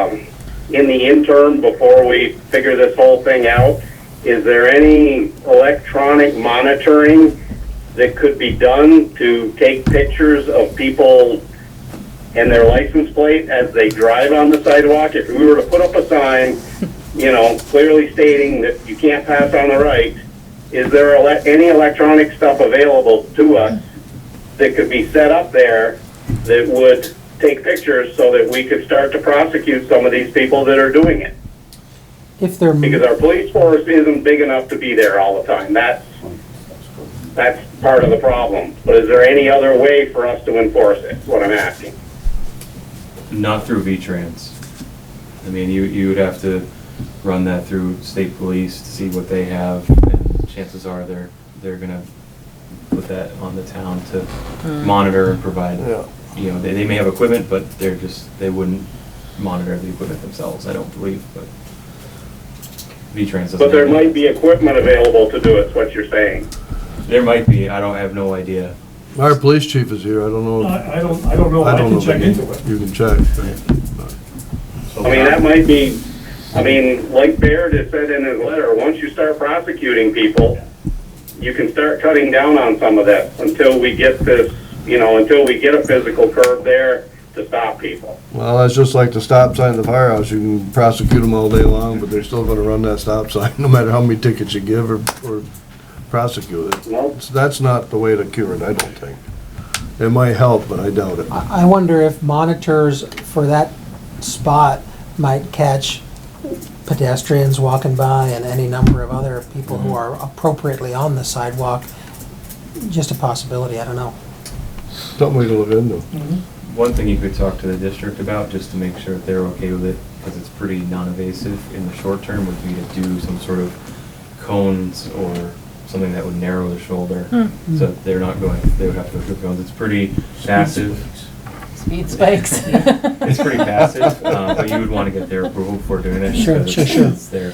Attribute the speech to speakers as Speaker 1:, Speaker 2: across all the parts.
Speaker 1: Um, in the interim, before we figure this whole thing out, is there any electronic monitoring that could be done to take pictures of people and their license plate as they drive on the sidewalk? If we were to put up a sign, you know, clearly stating that you can't pass on the right, is there ele- any electronic stuff available to us that could be set up there that would take pictures so that we could start to prosecute some of these people that are doing it.
Speaker 2: If they're,
Speaker 1: Because our police force isn't big enough to be there all the time. That's, that's part of the problem. But is there any other way for us to enforce it, is what I'm asking?
Speaker 3: Not through V-Trans. I mean, you, you would have to run that through state police to see what they have, and chances are they're, they're gonna put that on the town to monitor and provide.
Speaker 4: Yeah.
Speaker 3: You know, they, they may have equipment, but they're just, they wouldn't monitor the equipment themselves, I don't believe, but V-Trans doesn't.
Speaker 1: But there
Speaker 3: have that.
Speaker 1: might be equipment available to do it, is what you're saying.
Speaker 3: There might be, I don't, I have no idea.
Speaker 4: Our police chief is here, I don't know.
Speaker 5: I, I don't, I don't know, Uh, I
Speaker 4: don't
Speaker 5: can
Speaker 4: know.
Speaker 5: check into it.
Speaker 4: You can check.
Speaker 1: I mean, that might be, I mean, like Baird has said in his letter, once you start prosecuting people, you can start cutting down on some of that until we get this, you know, until we get a physical curb there to stop people.
Speaker 4: Well, that's just like the stop sign at the firehouse, you can prosecute them all day long, but they're still gonna run that stop sign, no matter how many tickets you give or, or prosecute it.
Speaker 1: Well,
Speaker 4: It's- That's not the way to cure it, I don't think. It might help, but I doubt it.
Speaker 2: I I wonder if monitors for that spot might catch pedestrians walking by and any number of other people
Speaker 1: Mm-hmm.
Speaker 2: who are appropriately on the sidewalk. Just a possibility, I don't know.
Speaker 4: Something we can look into.
Speaker 3: One thing you could talk to the district about, just to make sure that they're okay with it, because it's pretty non-invasive in the short term, would be to do some sort of cones or something that would narrow the shoulder,
Speaker 2: Hmm.
Speaker 3: so that they're not going, they would have to go through cones. It's pretty passive.
Speaker 6: Speed spikes.
Speaker 3: It's pretty passive, uh, but you would want to get their approval before doing it.
Speaker 2: Sure,
Speaker 3: because
Speaker 2: sure, sure.
Speaker 3: It's there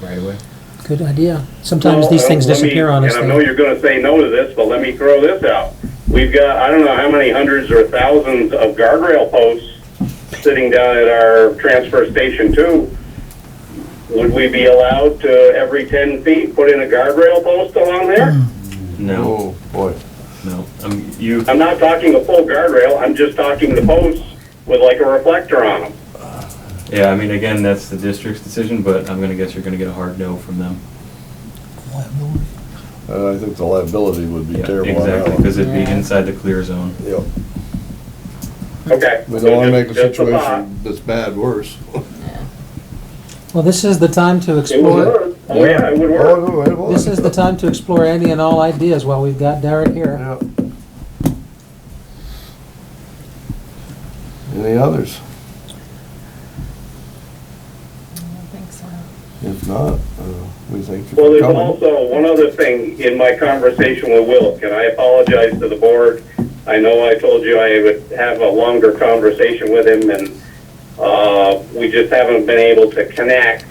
Speaker 3: right away.
Speaker 2: Good idea. Sometimes
Speaker 1: Well,
Speaker 2: these things
Speaker 1: uh, let me-
Speaker 2: disappear on us.
Speaker 1: And I know
Speaker 2: though.
Speaker 1: you're gonna say no to this, but let me throw this out. We've got, I don't know how many hundreds or thousands of guardrail posts sitting down at our transfer station too. Would we be allowed to, every ten feet, put in a guardrail post along there?
Speaker 2: Hmm.
Speaker 3: No,
Speaker 4: Oh, boy.
Speaker 3: no, um, you,
Speaker 1: I'm not talking a full guardrail, I'm just talking the posts with like a reflector on them.
Speaker 3: yeah, I mean, again, that's the district's decision, but I'm gonna guess you're gonna get a hard no from them.
Speaker 4: Uh, I think the liability would be
Speaker 3: Yeah,
Speaker 4: terrible. on that
Speaker 3: Exactly,
Speaker 4: one.
Speaker 3: because it'd be inside the clear zone.
Speaker 4: Yep.
Speaker 1: Okay.
Speaker 4: We don't wanna
Speaker 1: so
Speaker 4: make the
Speaker 1: just- just a thought.
Speaker 4: situation that's bad worse.
Speaker 2: Well, this is the time to
Speaker 1: It would
Speaker 2: explore,
Speaker 1: work, oh yeah, it would work.
Speaker 4: Oh, it was.
Speaker 2: this is the time to explore any and all ideas while we've got Derek here.
Speaker 4: Yeah. Any others? If not, uh, we thank you
Speaker 1: Well,
Speaker 4: for
Speaker 1: there's
Speaker 4: coming.
Speaker 1: also one other thing in my conversation with Wilk, and I apologize to the board. I know I told you I would have a longer conversation with him, and uh, we just haven't been able to connect.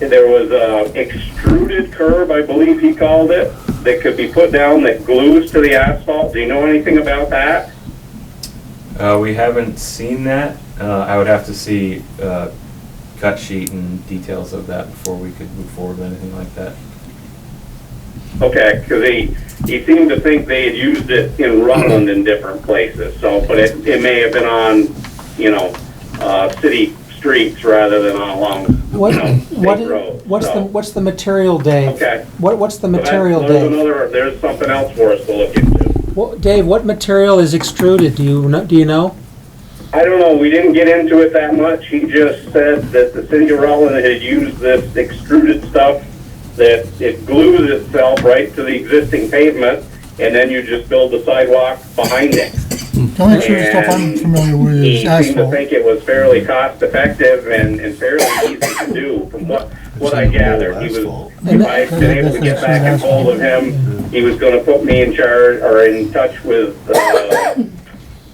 Speaker 1: There was a extruded curb, I believe he called it, that could be put down that glues to the asphalt. Do you know anything about that?
Speaker 3: Uh, we haven't seen that. Uh, I would have to see, uh, cut sheet and details of that before we could move forward with anything like that.
Speaker 1: Okay, because he, he seemed to think they had used it in Rutland in different places, so, but it, it may have been on, you know, uh, city streets rather than on along,
Speaker 2: What,
Speaker 1: you know,
Speaker 2: what,
Speaker 1: state roads.
Speaker 2: what's the,
Speaker 1: so.
Speaker 2: what's the material day?
Speaker 1: Okay.
Speaker 2: What, what's the
Speaker 1: But that-
Speaker 2: material day?
Speaker 1: There's another, there's something else for us to look into.
Speaker 2: What, Dave, what material is extruded? Do you know, do you know?
Speaker 1: I don't know, we didn't get into it that much, he just said that the city of Rutland had used this extruded stuff that it glues itself right to the existing pavement, and then you just build the sidewalk behind it.
Speaker 7: The only true stuff I'm familiar with
Speaker 1: he
Speaker 7: is
Speaker 1: seemed to
Speaker 7: asphalt.
Speaker 1: think it was fairly cost effective and, and fairly easy to do from what, what I gathered. He was, if I had been able to get back and hold of him, he was gonna put me in charge or in touch with, uh,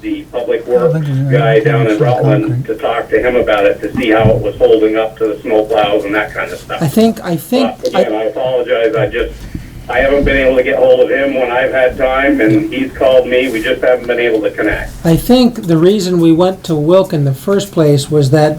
Speaker 1: the public works guy down in Rutland to talk to him about it, to see how it was holding up to the snowplows and that kind of stuff.
Speaker 2: I think, I think,
Speaker 1: But Again,
Speaker 2: I,
Speaker 1: I apologize, I just, I haven't been able to get hold of him when I've had time, and he's called me, we just haven't been able to connect.
Speaker 2: I think the reason we went to Wilk in the first place was that